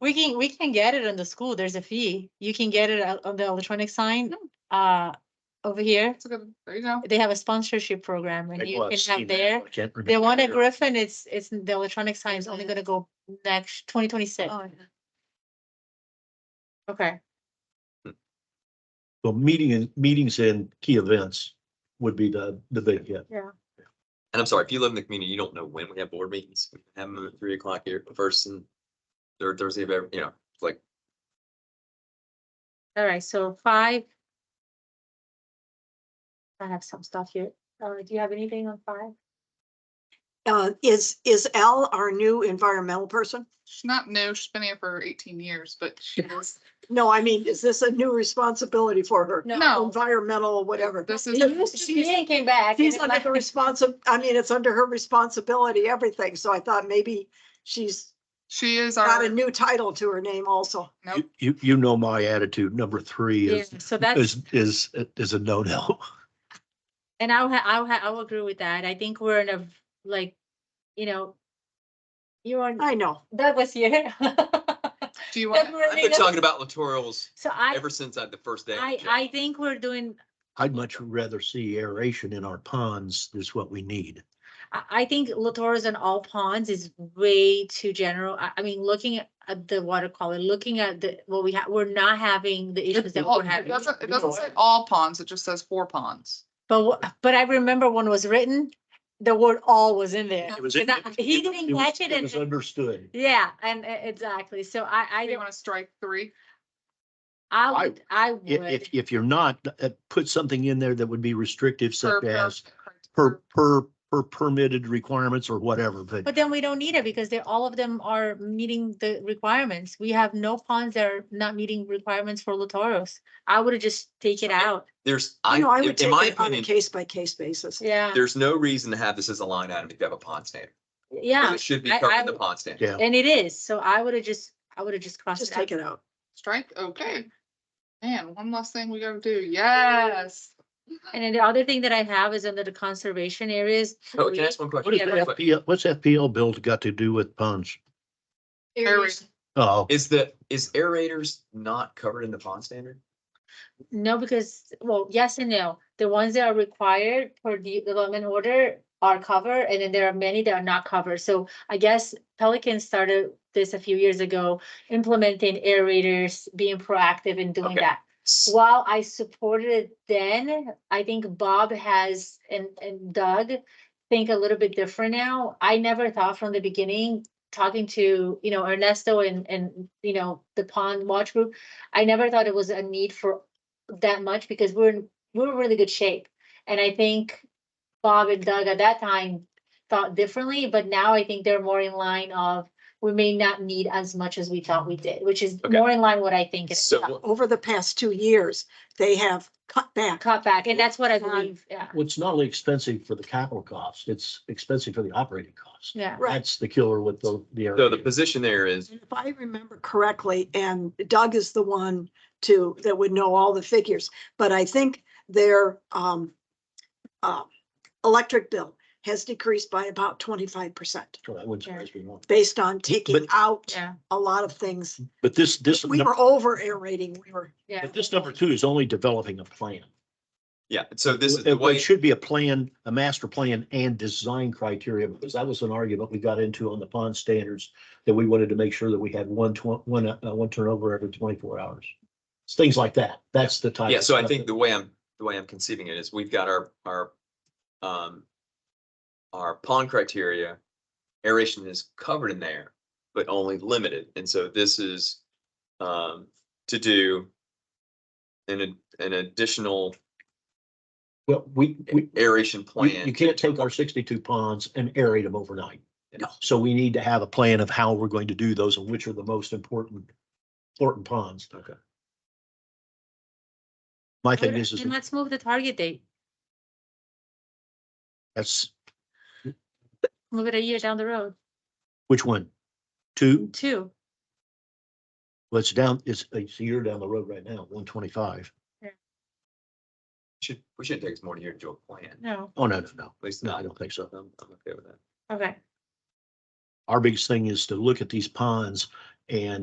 We can, we can get it on the school. There's a fee. You can get it out on the electronic sign, uh, over here. It's a good, there you go. They have a sponsorship program and Like, you well, I've can seen have that, there. but I can't The remember one at where. Griffin, it's, it's the electronic sign is only gonna go next twenty twenty-six. Oh. Oh, Okay. Well, meeting and meetings and key events would be the, the big hit. And I'm sorry, if you live in the community, you don't know when we have board meetings. We have them at three o'clock here, first and third Thursday of every, you know, like All right, so five. I have some stuff here. Uh, do you have anything on five? Uh, is, is Al our new environmental person? She's not new, she's been here for eighteen years, but she is. No, I mean, is this a new responsibility for her? No, Environmental, whatever. this It is, used to be she's, and came back. and She's it under might- the responsi, I mean, it's under her responsibility, everything. So I thought maybe she's she is got our, a new title to her name also. nope, You, you, you know my attitude. Number three Yeah, is, so that's, is, is, is a no-no. and I'll, ha- I'll, ha- I'll agree with that. I think we're in a, v- like, you know. You are, I know. that was here. do you want, I've been February, talking about Littorals So I, ever since I, the first day. I, I think we're doing, I'd much rather see aeration in our ponds is what we need. I, I think Latours on all ponds is way too general. I, I mean, looking at- at the water quality, looking at the, what we have, we're not having the issues that all- we're it having. doesn't, it doesn't say all ponds, it just says four ponds. But, wha- but I remember when it was written, the word all was in there. It was- And I- He didn't was- catch it was and, understood. yeah, and e- exactly. So I, I, Do you don't- wanna strike three? I I- would, I If, if, would. if you're not, uh, put something in there that would be restrictive per- such per- as per, per, per permitted requirements or whatever, but But then we don't need it because they, all of them are meeting the requirements. We have no ponds that are not meeting requirements for Latoros. I would have just take it out. There's, I, You know, I in would take in my it on a opinion, case by case basis. Yeah. there's no reason to have this as a line item if you have a pond standard. Yeah, It should be I- covered I in the would- pond standard. yeah. and it is. So I would have just, I would have just crossed Just it take out. it out. Strike, okay. Man, one last thing we gotta do, yes. And then the other thing that I have is under the conservation areas. Oh, can I we- ask one question? What is Yeah, the that's- FPL, what's FPL build got to do with ponds? Aeration. Oh, Is the, is aerators not covered in the pond standard? No, because, well, yes and no. The ones that are required for the development order are covered, and then there are many that are not covered. So I guess Pelican started this a few years ago, implementing aerators, being proactive in doing Okay. that. While I supported it then, I think Bob has and and Doug think a little bit different now. I never thought from the beginning, talking to, you know, Ernesto and and, you know, the Pond Watch Group. I never thought it was a need for that much because we're in, we're in really good shape. And I think Bob and Doug at that time thought differently, but now I think they're more in line of we may not need as much as we thought we did, which is Okay. more in line what I think. it is So now what- Over the past two years, they have cut back. cut back, and that's what I Fine. believe, yeah, well, it's not only expensive for the capital costs, it's expensive for the operating costs. yeah. Right. That's the killer with the, the. so the aeration. position there is, And If I remember correctly, and Doug is the one to, that would know all the figures, but I think their um. uh, Electric bill has decreased by about twenty-five percent So that wouldn't surprise me at all. based on taking But- out Yeah, a lot of things. But this, this, We num- were over aerating, we were, yeah. but this number two is only developing a plan. yeah, so this is the It way. it should be a plan, a master plan and design criteria, because that was an argument we got into on the pond standards. That we wanted to make sure that we had one twen- one, uh, one turnover every twenty-four hours. It's Things like that. That's the type. Yeah, of so I stuff think that- the way I'm, the way I'm conceiving it is we've got our, our, um, our pond criteria, aeration is covered in there, but only limited. And so this is, um, to do an, an additional Well, we, we, aeration You, plan. you can't take our sixty-two ponds and aerate them overnight. No. So we need to have a plan of how we're going to do those and which are the most important, important ponds. Okay. My thing is, is And let's move the target date, that's, move it a year down the road, which one? Two, two. well, it's down, it's, it's a year down the road right now, one twenty-five. Should, we shouldn't take us more than a year to do a plan. At No, Oh, no, no, no. least No, I not, don't think so. I'm, I'm okay with that. okay. Our biggest thing is to look at these ponds and